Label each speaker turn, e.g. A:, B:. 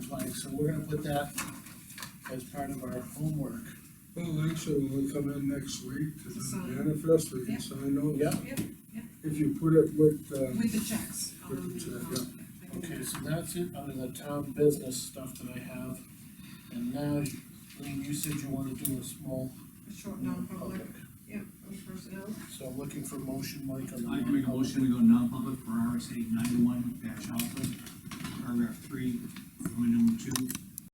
A: flag, so we're gonna put that as part of our homework.
B: Well, actually, when we come in next week to
C: To
B: the
C: sign.
B: manifest, we
C: Yeah.
B: can sign those.
A: Yeah.
C: Yep, yep.
B: If you put it with, uh,
C: With the checks. Um, I'll
B: With the
C: leave it
B: check,
C: on. I can-
A: Okay, so that's it under the town business stuff that I have. And now, Lean, you said you wanna do a small.
C: A um, short non-public, yep, on personnel.
A: So I'm looking for motion, Mike, on the.
D: I can make a motion, we go non-public for RSA ninety-one dash alpha, paragraph three, line number two,